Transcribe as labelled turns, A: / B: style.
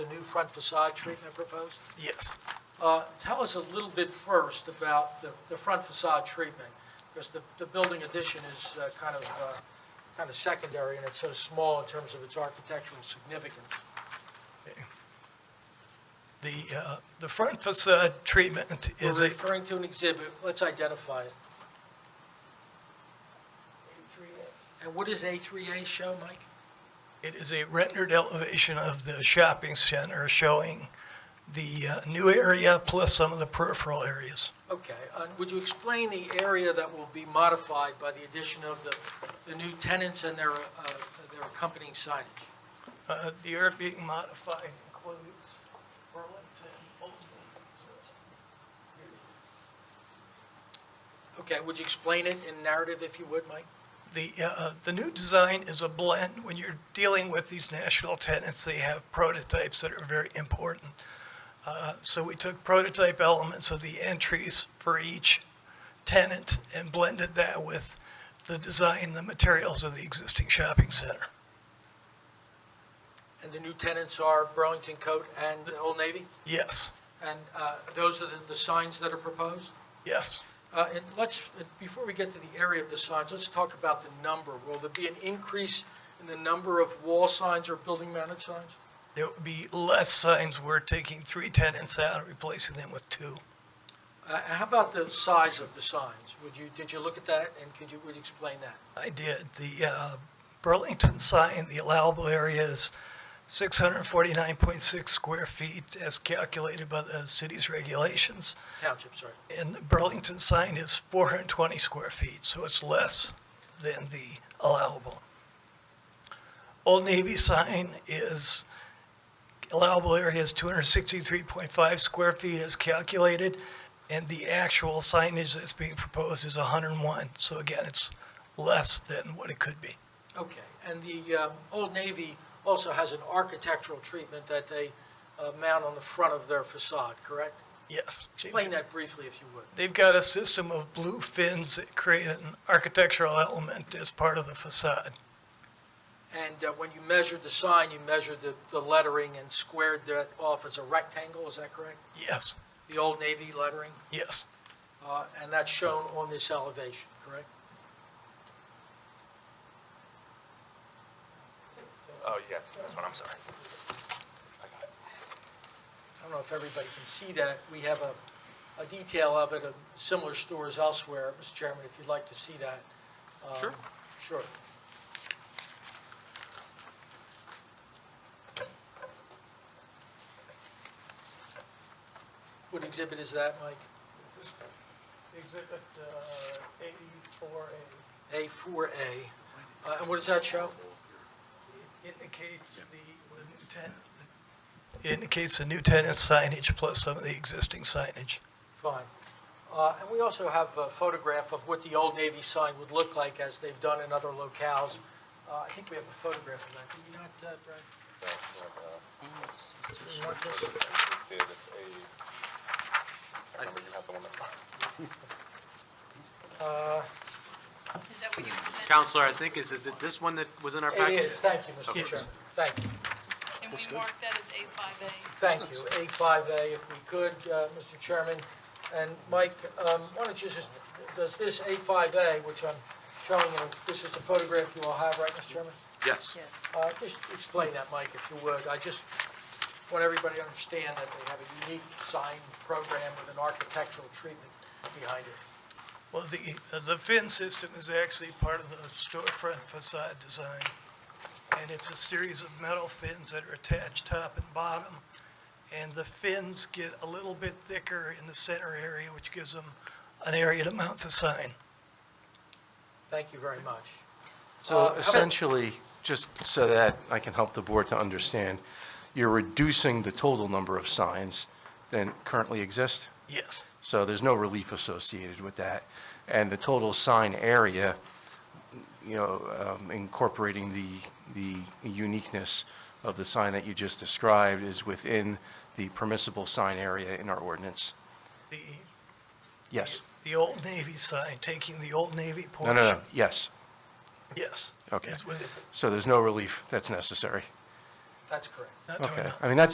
A: front facade treatment proposed?
B: Yes.
A: Uh, Tell us a little bit first about the, the front facade treatment, because the, the building addition is uh, kind of, uh, kind of secondary, and it's so small in terms of its architectural significance.
B: The, uh, the front facade treatment
A: We're
B: is a,
A: referring to an exhibit, let's identify it. And what does A3A show, Mike?
B: it is a rendered elevation of the shopping center showing the uh, new area plus some of the peripheral areas.
A: Okay, uh, would you explain the area that will be modified by the addition of the, the new tenants and their, uh, their accompanying signage?
B: Uh, The area being modified includes Burlington, Old
A: Okay, would you explain it in narrative, if you would, Mike?
B: The, uh, the new design is a blend. When you're dealing with these national tenants, they have prototypes that are very important. Uh, So we took prototype elements of the entries for each tenant and blended that with the design, the materials of the existing shopping center.
A: And the new tenants are Burlington Coat and Old Navy?
B: Yes,
A: And uh, those are the- the signs that are proposed?
B: yes.
A: Uh, And let's, before we get to the area of the signs, let's talk about the number. Will there be an increase in the number of wall signs or building mounted signs?
B: There would be less signs. We're taking three tenants out, replacing them with two.
A: Uh, and How about the size of the signs? Would you, did you look at that, and could you, would you explain that?
B: I did. The uh, Burlington sign, the allowable area is 649.6 square feet as calculated by the city's regulations.
A: Township, sorry.
B: And Burlington sign is 420 square feet, so it's less than the allowable. Old Navy sign is, allowable area is 263.5 square feet as calculated, and the actual signage that's being proposed is 101. So again, it's less than what it could be.
A: Okay, and the um, Old Navy also has an architectural treatment that they uh, mount on the front of their facade, correct?
B: Yes.
A: Explain that briefly, if you would.
B: They've got a system of blue fins that create an architectural element as part of the facade.
A: And uh, when you measured the sign, you measured the, the lettering and squared that off as a rectangle, is that correct?
B: Yes,
A: The Old Navy lettering,
B: yes.
A: uh, and that's shown on this elevation, correct?
C: Oh, yes, that's what I'm sorry. I got it.
A: I don't know if everybody can see that. We have a, a detail of it, of similar stores elsewhere, Mr. Chairman, if you'd like to see that. Um,
C: Sure.
A: Sure. What exhibit is that, Mike?
B: Exhibit uh, 84A
A: A4A. Uh, And what does that show?
B: indicates the the new tenant. It indicates the new tenant signage plus some of the existing signage.
A: Fine. Uh, And we also have a photograph of what the Old Navy sign would look like as they've done in other locales. Uh, I think we have a photograph of that, do we not, uh, Brad? Do we want this?
C: It did, it's a, I remember you have the one that's mine.
A: Uh,
D: Is that what you presented?
E: Counselor, I think, is it this one that was in our
A: It
E: package?
A: is, thank you, Mr.
B: Yes.
A: Chairman. Thank you,
D: And we marked that as A5A.
A: thank you. A5A, if we could, uh, Mr. Chairman. And Mike, um, why don't you just, does this A5A, which I'm showing you, this is the photograph you all have, right, Mr. Chairman?
E: Yes.
A: Uh, Just explain that, Mike, if you would. I just want everybody to understand that they have a unique sign program with an architectural treatment behind it.
B: Well, the, uh, the fin system is actually part of the storefront facade design, and it's a series of metal fins that are attached top and bottom, and the fins get a little bit thicker in the center area, which gives them an area to mount the sign.
A: Thank you very much. Uh, how
F: So
A: about-
F: essentially, just so that I can help the board to understand, you're reducing the total number of signs than currently exist,
B: Yes,
F: so there's no relief associated with that. And the total sign area, you know, um, incorporating the, the uniqueness of the sign that you just described is within the permissible sign area in our ordinance.
B: the,
F: Yes?
B: the Old Navy sign, taking the Old Navy
F: No,
B: portion.
F: no, no, yes.
B: Yes.
F: Okay.
B: It's with it,
F: So there's no relief that's necessary.
A: That's correct.
B: not to our
F: Okay.
B: knowledge.
F: I mean, that's